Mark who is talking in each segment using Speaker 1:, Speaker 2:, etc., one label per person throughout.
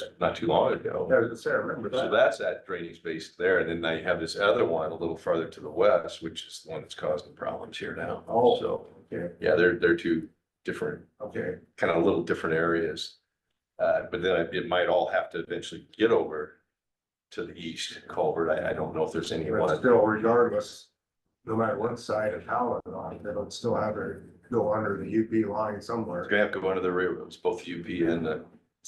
Speaker 1: just not too long ago.
Speaker 2: was say, I remember
Speaker 1: So that's that drainage base there, and then now you have this other one a little farther to the west, which is the one that's causing problems here now.
Speaker 2: Oh.
Speaker 1: So,
Speaker 2: Okay,
Speaker 1: yeah, they're, they're two different,
Speaker 2: okay,
Speaker 1: kind of little different areas. Uh, but then it might all have to eventually get over to the east culvert. I, I don't know if there's any
Speaker 2: but
Speaker 1: one.
Speaker 2: still regardless, no matter what side of how it on, they'll still have to go under the UP line
Speaker 1: It's
Speaker 2: somewhere.
Speaker 1: gonna have to go under the railroads, both UP and the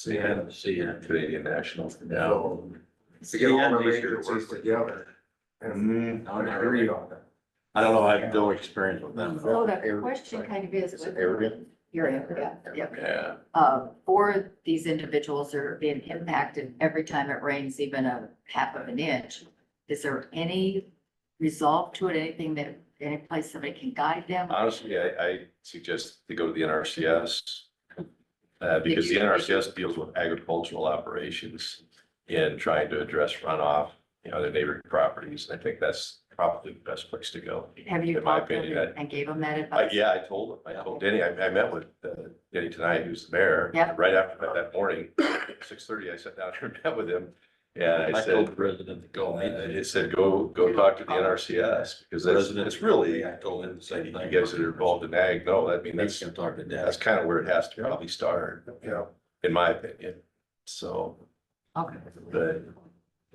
Speaker 2: Yeah.
Speaker 1: Canadian National.
Speaker 2: So, To
Speaker 3: See,
Speaker 2: get all
Speaker 3: that
Speaker 2: the
Speaker 3: needs to work
Speaker 2: agencies
Speaker 3: with-
Speaker 2: together and
Speaker 1: Mm,
Speaker 3: No, not
Speaker 2: agree
Speaker 3: really.
Speaker 2: on that.
Speaker 3: I don't know, I have no experience with them.
Speaker 4: So the question kind of is.
Speaker 3: Is it area?
Speaker 4: Your area, yeah, yeah.
Speaker 1: Yeah,
Speaker 4: Uh, four, these individuals are being impacted every time it rains even a half of an inch. Is there any resolve to it, anything that, any place somebody can guide them?
Speaker 1: Honestly, I, I suggest they go to the NRCS. Uh, because the NRCS deals with agricultural operations in trying to address runoff, you know, their neighboring properties. I think that's probably the best place to go.
Speaker 4: Have you
Speaker 1: In my
Speaker 4: talked to
Speaker 1: opinion,
Speaker 4: them and gave them that
Speaker 1: I
Speaker 4: advice?
Speaker 1: yeah, I told him, I told Denny, I, I met with uh, Denny tonight, who's the mayor.
Speaker 4: Yeah.
Speaker 1: Right after that- that morning, six thirty, I sat down and met with him. And I
Speaker 3: I
Speaker 1: said,
Speaker 3: told the president to go.
Speaker 1: uh,
Speaker 3: meet them.
Speaker 1: it said, go, go talk to the NRCS because that's,
Speaker 3: President-
Speaker 1: it's really,
Speaker 3: I told him the same
Speaker 1: you
Speaker 3: thing.
Speaker 1: guys that are involved in ag, no, I mean,
Speaker 3: He's
Speaker 1: that's
Speaker 3: gonna talk to
Speaker 1: that's
Speaker 3: Dennis.
Speaker 1: kind of where it has to probably start, you know, in my opinion. So,
Speaker 4: Okay.
Speaker 1: but,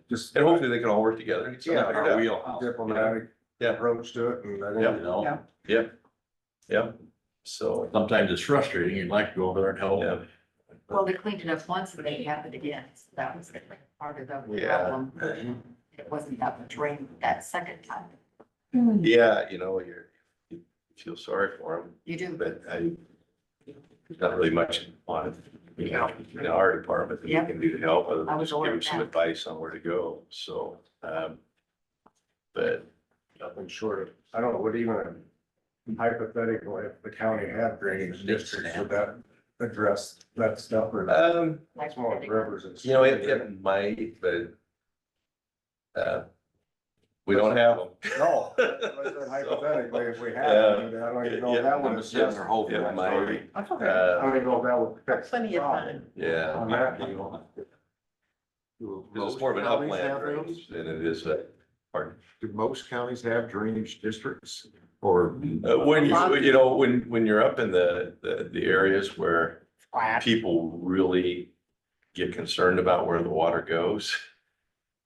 Speaker 2: Just
Speaker 1: and hopefully they can all work together. and get something
Speaker 2: Yeah,
Speaker 1: figured
Speaker 3: Our
Speaker 1: out.
Speaker 3: wheelhouse.
Speaker 2: diplomatic
Speaker 1: Yeah.
Speaker 2: approach to it and I
Speaker 3: You
Speaker 2: think
Speaker 3: know,
Speaker 1: Yep. So,
Speaker 3: sometimes it's frustrating. You'd like to go over there and help.
Speaker 1: yeah,
Speaker 4: Well, they cleaned it up once and then it happened again. So that was part of the
Speaker 1: Yeah.
Speaker 4: problem. It wasn't that much rain that second time.
Speaker 1: yeah, you know, you're, you feel sorry for
Speaker 4: You
Speaker 1: them,
Speaker 4: do,
Speaker 1: but I, there's not really much on it. You know, in our department that we
Speaker 4: Yeah.
Speaker 1: can do to help, other
Speaker 4: I
Speaker 1: than
Speaker 4: was
Speaker 1: just give
Speaker 4: aware
Speaker 1: them
Speaker 4: of
Speaker 1: some
Speaker 4: that.
Speaker 1: advice on where to go, so, um. But,
Speaker 2: nothing short of, I don't know, what even hypothetical if the county had drainage districts would that address that stuff or not?
Speaker 1: um,
Speaker 4: like,
Speaker 2: Small rivers and.
Speaker 1: You know, it, it might, but. uh, We don't have them.
Speaker 2: No, I said hypothetically, if we had, I mean, I don't even know if that
Speaker 3: I'm
Speaker 2: would
Speaker 3: just sitting
Speaker 2: adjust.
Speaker 3: there hoping.
Speaker 1: Yeah,
Speaker 3: that's
Speaker 1: my-
Speaker 3: all right.
Speaker 4: That's
Speaker 2: I
Speaker 1: Uh,
Speaker 2: don't even know if that would fix. the
Speaker 4: Plenty of
Speaker 2: problem.
Speaker 4: time.
Speaker 1: Yeah,
Speaker 2: On that deal.
Speaker 1: because it's more of an upland range than it is a, pardon.
Speaker 5: Do most counties have drainage districts or?
Speaker 1: Uh, When you, you know, when, when you're up in the, the, the areas where people really get concerned about where the water goes,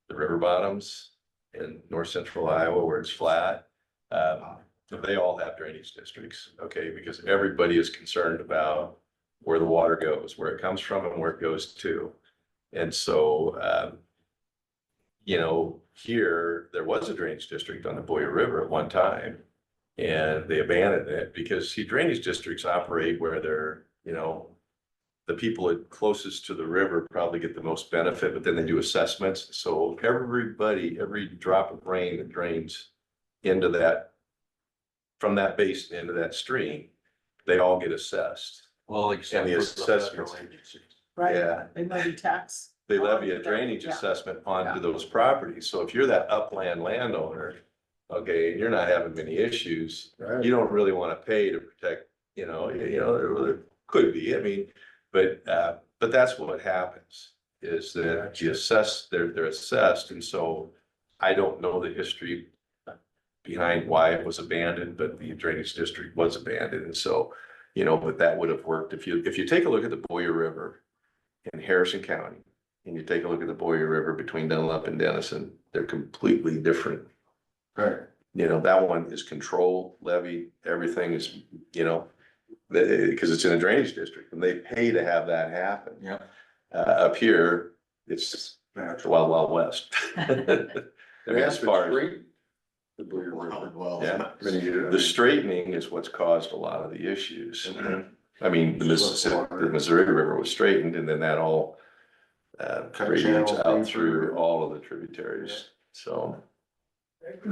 Speaker 1: the river bottoms in north central Iowa where it's flat, um, they all have drainage districts, okay? Because everybody is concerned about where the water goes, where it comes from and where it goes to. And so, um, you know, here, there was a drainage district on the Boyer River at one time. And they abandoned it because see drainage districts operate where they're, you know, the people that closest to the river probably get the most benefit, but then they do assessments. So everybody, every drop of rain that drains into that, from that basin into that stream, they all get assessed.
Speaker 3: Well, except.
Speaker 1: And the
Speaker 3: for
Speaker 1: assessments.
Speaker 3: federal agencies.
Speaker 1: Yeah.
Speaker 6: They levy tax.
Speaker 1: they
Speaker 6: Oh,
Speaker 1: levy a
Speaker 6: yeah,
Speaker 1: drainage
Speaker 6: yeah.
Speaker 1: assessment onto those properties. So if you're that upland landowner, okay, and you're not having many issues,
Speaker 2: Right.
Speaker 1: you don't really want to pay to protect, you know, you you know, there there could be, I mean, but, uh, but that's what happens. Is that you assess, they're, they're assessed, and so I don't know the history behind why it was abandoned, but the drainage district was abandoned, and so, you know, but that would have worked. If you, if you take a look at the Boyer River in Harrison County, and you take a look at the Boyer River between Dunlap and Dennison, they're completely different
Speaker 2: Right.
Speaker 1: you know, that one is control levy, everything is, you know, because it's in a drainage district and they pay to have that happen.
Speaker 3: Yeah.
Speaker 1: Uh, up here, it's just the wild, wild west. I mean, as far as
Speaker 5: The Blue River.
Speaker 3: Well,
Speaker 1: Yeah.
Speaker 5: Many years.
Speaker 1: the straightening is what's caused a lot of the issues.
Speaker 5: Mm-hmm.
Speaker 1: I mean, the Mississippi, the Missouri River was straightened and then that all uh,
Speaker 5: Cut
Speaker 1: radiates
Speaker 5: channels deeper.
Speaker 1: out through all of the tributaries, so.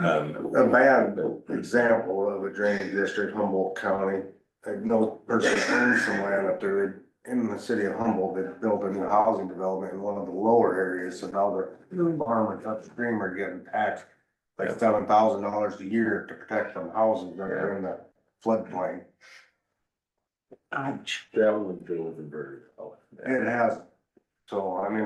Speaker 1: um,
Speaker 2: A bad example of a drainage district, Humboldt County, I know a person owns some land up there in the city of Humboldt that built a new housing development in one of the lower areas, so now the farmers upstream are getting taxed like seven thousand dollars a year to protect them houses that are in the floodplain.
Speaker 6: Ouch.
Speaker 5: That one drove the bird.
Speaker 2: It has, so I mean,